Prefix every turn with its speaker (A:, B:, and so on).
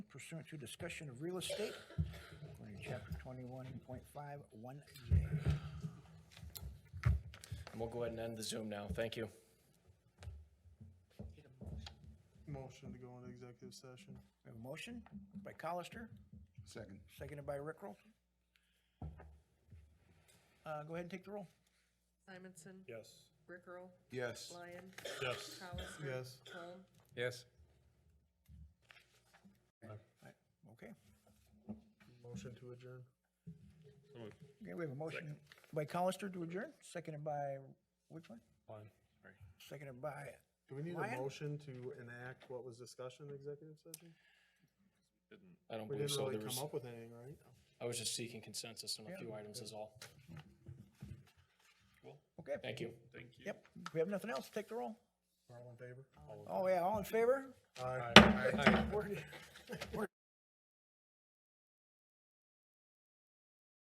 A: pursuant to discussion of real estate, according to chapter twenty-one point five, one J.
B: And we'll go ahead and end the Zoom now. Thank you.
C: Motion to go into executive session.
A: We have a motion by Colister,
D: Second.
A: seconded by Rickrell. Uh, go ahead and take the roll.
E: Simonson.
C: Yes.
E: Rickrell.
D: Yes.
E: Lyon.
C: Yes.
E: Colister.
C: Yes.
E: Holm.
F: Yes.
A: Right, Okay.
C: Motion to adjourn.
A: Okay, we have a motion by Colister to adjourn, seconded by, which one?
C: Fine.
A: Seconded by,
C: Do we need a
A: Ryan?
C: motion to enact what was discussed in executive session?
B: I don't
C: We
B: believe
C: didn't
B: so. There
C: really
B: was,
C: come up with anything, right?
B: I was just seeking consensus on a few items is all.
A: okay.
B: Thank you.
A: Yep, we have nothing else, take the roll.
C: All in favor?
A: Oh, yeah, all in favor?
C: Aye.